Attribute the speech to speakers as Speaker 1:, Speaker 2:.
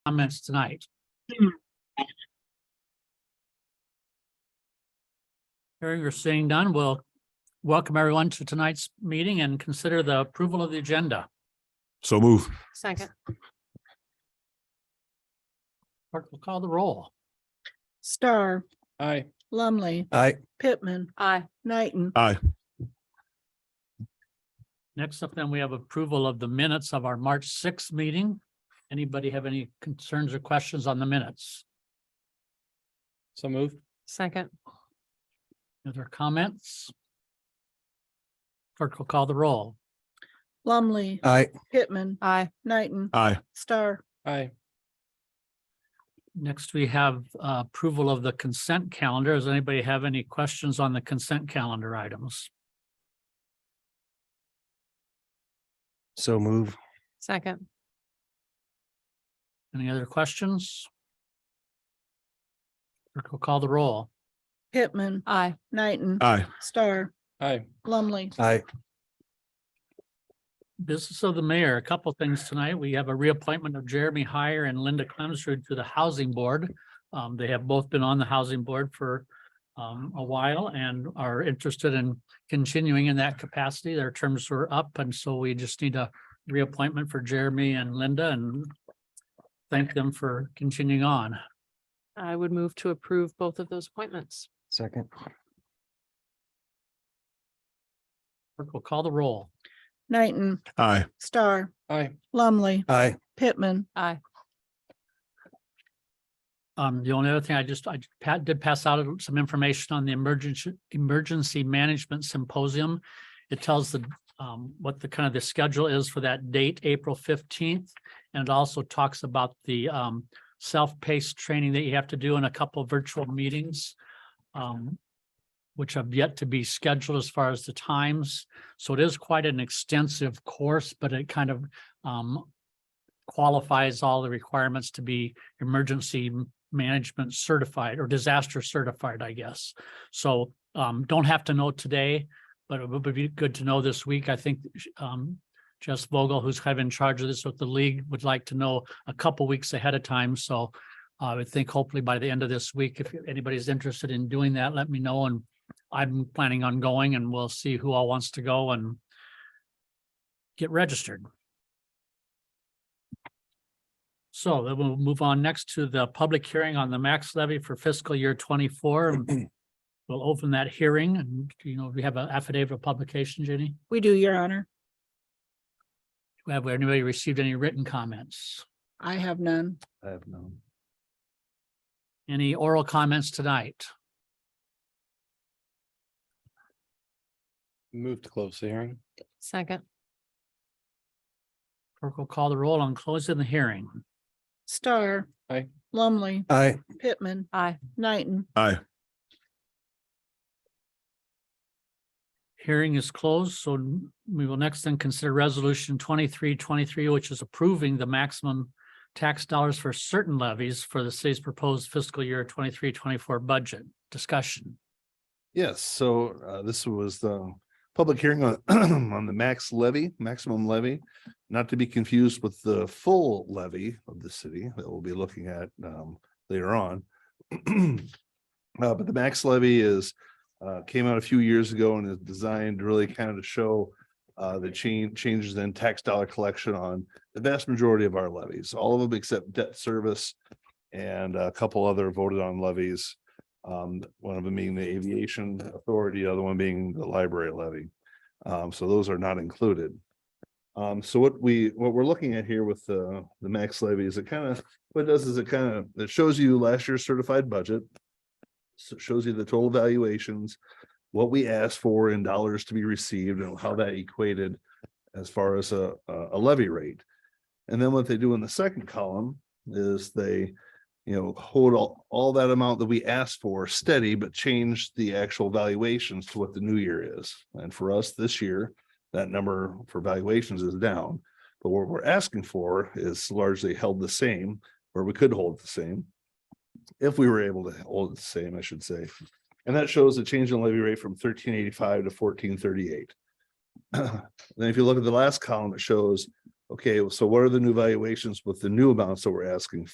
Speaker 1: comments tonight? Hearing or seeing none, we'll welcome everyone to tonight's meeting and consider the approval of the agenda.
Speaker 2: So move.
Speaker 3: Second.
Speaker 1: Clerk will call the roll.
Speaker 4: Star,
Speaker 1: Aye.
Speaker 4: Lumley,
Speaker 2: Aye.
Speaker 4: Pittman,
Speaker 3: Aye.
Speaker 4: Knighton,
Speaker 2: Aye.
Speaker 1: Next up, then, we have approval of the minutes of our March sixth meeting. Anybody have any concerns or questions on the minutes?
Speaker 5: So moved.
Speaker 3: Second.
Speaker 1: Other comments? Clerk will call the roll.
Speaker 4: Lumley,
Speaker 2: Aye.
Speaker 4: Pittman,
Speaker 3: Aye.
Speaker 4: Knighton,
Speaker 2: Aye.
Speaker 4: Star,
Speaker 5: Aye.
Speaker 1: Next, we have uh, approval of the consent calendar. Does anybody have any questions on the consent calendar items?
Speaker 2: So move.
Speaker 3: Second.
Speaker 1: Any other questions? Clerk will call the roll.
Speaker 4: Pittman,
Speaker 3: Aye.
Speaker 4: Knighton,
Speaker 2: Aye.
Speaker 4: Star,
Speaker 5: Aye.
Speaker 4: Lumley,
Speaker 2: Aye.
Speaker 1: Business of the mayor, a couple things tonight. We have a reappointment of Jeremy Heyer and Linda Clemstrud to the Housing Board. Um, they have both been on the Housing Board for um, a while and are interested in continuing in that capacity. Their terms were up, and so we just need a reappointment for Jeremy and Linda and thank them for continuing on.
Speaker 3: I would move to approve both of those appointments.
Speaker 2: Second.
Speaker 1: Clerk will call the roll.
Speaker 4: Knighton,
Speaker 2: Aye.
Speaker 4: Star,
Speaker 5: Aye.
Speaker 4: Lumley,
Speaker 2: Aye.
Speaker 4: Pittman,
Speaker 3: Aye.
Speaker 1: Um, the only other thing I just, I pa- did pass out some information on the emergency, emergency management symposium. It tells the, um, what the kind of the schedule is for that date, April fifteenth. And it also talks about the, um, self-paced training that you have to do in a couple of virtual meetings. Um, which have yet to be scheduled as far as the times. So it is quite an extensive course, but it kind of, um, qualifies all the requirements to be emergency management certified or disaster certified, I guess. So um, don't have to know today, but it would be good to know this week. I think um, Jess Vogel, who's kind of in charge of this with the league, would like to know a couple weeks ahead of time. So I would think hopefully by the end of this week, if anybody's interested in doing that, let me know. And I'm planning on going and we'll see who all wants to go and get registered. So then we'll move on next to the public hearing on the max levy for fiscal year twenty-four. And We'll open that hearing and, you know, we have an affidavit of publication, Jenny.
Speaker 4: we do, your honor.
Speaker 1: Have anybody received any written comments?
Speaker 4: I have none.
Speaker 2: I have none.
Speaker 1: Any oral comments tonight?
Speaker 5: Move to close the hearing.
Speaker 3: Second.
Speaker 1: Clerk will call the roll on closing the hearing.
Speaker 4: Star.
Speaker 5: Aye.
Speaker 4: Lumley,
Speaker 2: Aye.
Speaker 4: Pittman,
Speaker 3: Aye.
Speaker 4: Knighton,
Speaker 2: Aye.
Speaker 1: Hearing is closed, so n- we will next then consider resolution twenty-three twenty-three, which is approving the maximum tax dollars for certain levies for the city's proposed fiscal year twenty-three twenty-four budget. Discussion.
Speaker 6: Yes, so uh, this was the public hearing on, on the max levy, maximum levy. Not to be confused with the full levy of the city that we'll be looking at um, later on. Uh, But the max levy is, uh, came out a few years ago and is designed really kind of to show uh, the change, changes in tax dollar collection on the vast majority of our levies, all of them except debt service and a couple other voted on levies. Um, one of them being the aviation authority, the other one being the library levy. Um, so those are not included. Um, so what we, what we're looking at here with the, the max levy is it kind of, what it does is it kind of, it shows you last year's certified budget. So it shows you the total valuations, what we asked for in dollars to be received and how that equated as far as a, a a levy rate. And then what they do in the second column is they you know, hold all, all that amount that we asked for steady, but change the actual valuations to what the new year is. And for us this year, that number for valuations is down. But what we're asking for is largely held the same, or we could hold the same. If we were able to hold it the same, I should say. And that shows a change in levy rate from thirteen eighty-five to fourteen thirty-eight. Then if you look at the last column, it shows, okay, so what are the new valuations with the new amounts that we're asking